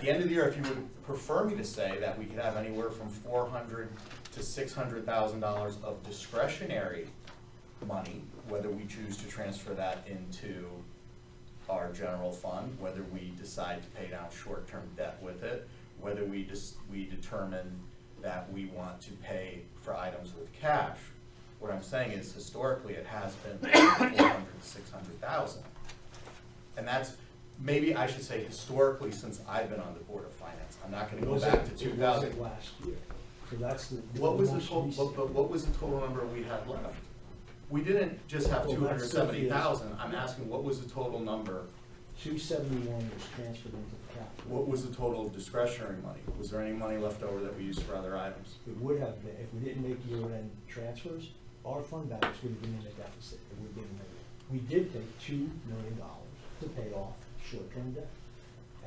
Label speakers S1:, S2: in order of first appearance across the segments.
S1: the end of the year, if you would prefer me to say that we could have anywhere from four hundred to six hundred thousand dollars of discretionary money, whether we choose to transfer that into our general fund, whether we decide to pay down short-term debt with it, whether we just, we determine that we want to pay for items with cash. What I'm saying is historically, it has been four hundred to six hundred thousand. And that's, maybe I should say historically, since I've been on the Board of Finance, I'm not gonna go back to two thousand.
S2: It wasn't last year, so that's the.
S1: What was the
S2: most
S1: total,
S2: recent.
S1: but, but what was the total number we had left? We didn't just have
S2: Well,
S1: two
S2: that's
S1: hundred
S2: the-
S1: seventy thousand, I'm asking, what was the total number?
S2: Two seventy-one was transferred into the capital.
S1: What was the total discretionary money? Was there any money left over that we used for other items?
S2: It would have been, if we didn't make year-end transfers, our fund balance would have been in a deficit, it would have been negative. We did take two million dollars to pay off short-term debt,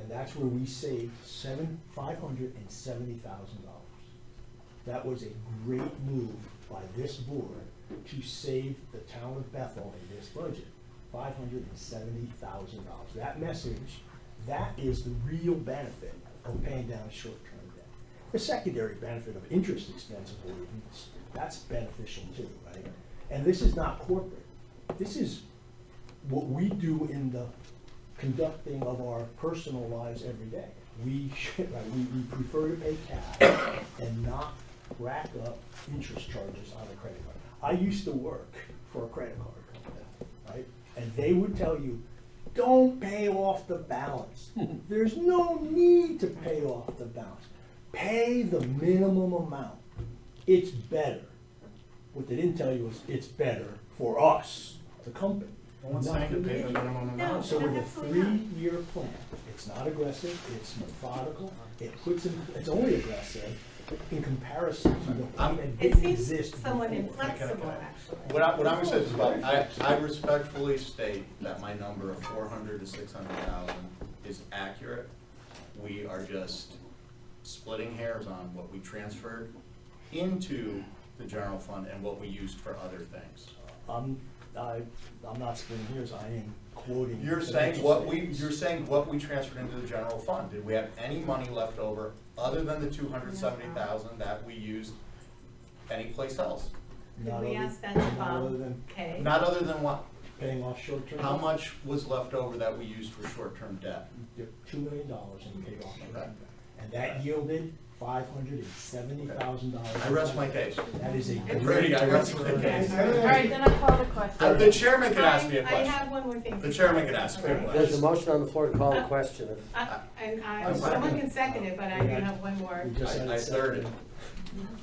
S2: and that's where we saved seven, five hundred and seventy thousand dollars. That was a great move by this board to save the town of Bethel in this budget, five hundred and seventy thousand dollars. That message, that is the real benefit of paying down short-term debt. The secondary benefit of interest expense avoidance, that's beneficial too, right? And this is not corporate. This is what we do in the conducting of our personal lives every day. We should, right, we, we prefer to pay cash and not rack up interest charges on a credit card. I used to work for a credit card company, right? And they would tell you, don't pay off the balance. There's no need to pay off the balance. Pay the minimum amount. It's better. What they didn't tell you was it's better for us, the company.
S1: No one's saying to pay the minimum
S3: No.
S1: amount.
S2: So with a
S3: Absolutely not.
S2: three-year plan, it's not aggressive, it's methodical, it puts in, it's only aggressive in comparison to the plan that
S3: It
S2: didn't
S3: seems
S2: exist
S3: somewhat
S2: before.
S3: inflexible, actually.
S1: What I, what I'm gonna say is, well, I, I respectfully state that my number of four hundred to six hundred thousand is accurate. We are just splitting hairs on what we transferred into the general fund and what we used for other things.
S2: I'm, I, I'm not splitting hairs, I am quoting.
S1: You're saying
S2: financial
S1: what we,
S2: statements.
S1: you're saying what we transferred into the general fund, did we have any money left over other than the two hundred seventy thousand that we used anyplace else?
S2: Not
S3: Did we
S2: other-
S3: ask that to
S2: Not other
S3: Bob
S2: than
S3: Kay?
S1: Not other than what,
S2: paying off short-term.
S1: how much was left over that we used for short-term debt?
S2: Two million dollars and paid off short-term.
S1: Okay.
S2: debt. And that yielded five hundred and seventy thousand dollars.
S1: I rest my case.
S2: That is a great.
S1: Brady, I rest my case.
S4: All right, then I call the question.
S1: Uh, The chairman can ask me a
S3: I- I
S1: question.
S3: have one more thing.
S1: The chairman can ask me a
S5: There's a
S1: question.
S5: motion on the floor to call the question. If-
S3: I- And I,
S1: I'm sorry.
S3: someone can second it, but I do have one more.
S2: We just
S1: I-
S2: had
S1: I
S2: it
S1: third it.
S2: seconded.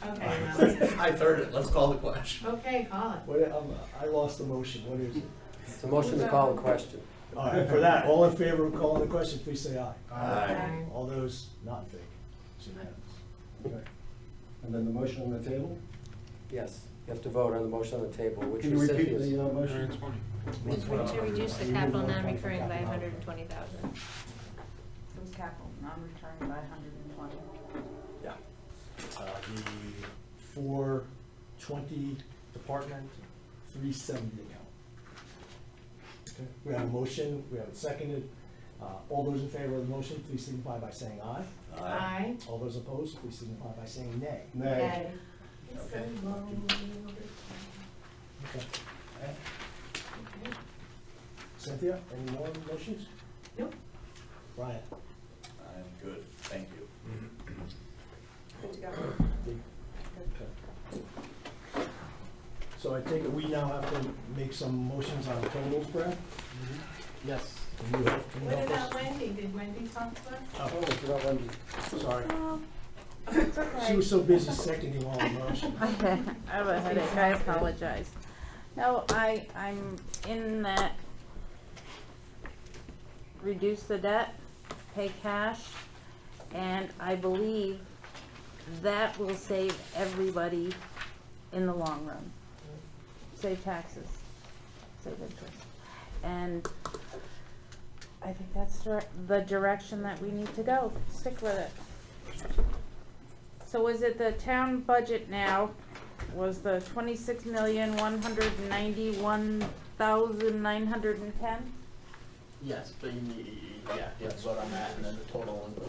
S3: Okay, well,
S1: I third it, let's call the question.
S3: okay, call it.
S2: What, um, I lost the motion, what is it?
S5: It's a motion to call the question.
S2: All right, for that, all in favor of calling the question, please say aye.
S1: Aye.
S2: All those not in favor? It's unanimous.
S6: Okay. And then the motion on the table?
S5: Yes, you have to vote on the motion on the table, which
S6: Can you repeat the
S5: recipients.
S6: uh, motion?
S4: Move to reduce the capital non-recurring by hundred and twenty thousand.
S7: It was capital, non-recurring by hundred and twenty.
S2: Yeah. Uh, the four twenty department, three seventy account. Okay. We have a motion, we have it seconded. Uh, all those in favor of the motion, please signify by saying aye.
S3: Aye.
S2: All those opposed, please signify by saying nay.
S6: Nay.
S1: Okay.
S2: Okay. Cynthia, any more motions?
S3: Nope.
S2: Ryan?
S1: I'm good, thank you.
S2: So I take it we now have to make some motions on totals, Brad?
S5: Yes.
S2: Can you help- can you
S3: What
S2: help
S3: about
S2: us?
S3: Wendy? Did Wendy talk to
S5: Oh, I forgot one.
S2: Oh, sorry.
S7: It's
S2: She was so busy seconding all the motions.
S4: I have a headache, I apologize. No, I, I'm in that, reduce the debt, pay cash, and I believe that will save everybody in the long run. Save taxes, save interest. And I think that's dir- the direction that we need to go, stick with it. So is it the town budget now was the twenty-six million, one hundred and ninety-one thousand, nine hundred and ten?
S8: Yes, being the, yeah, that's what I'm at, and then the total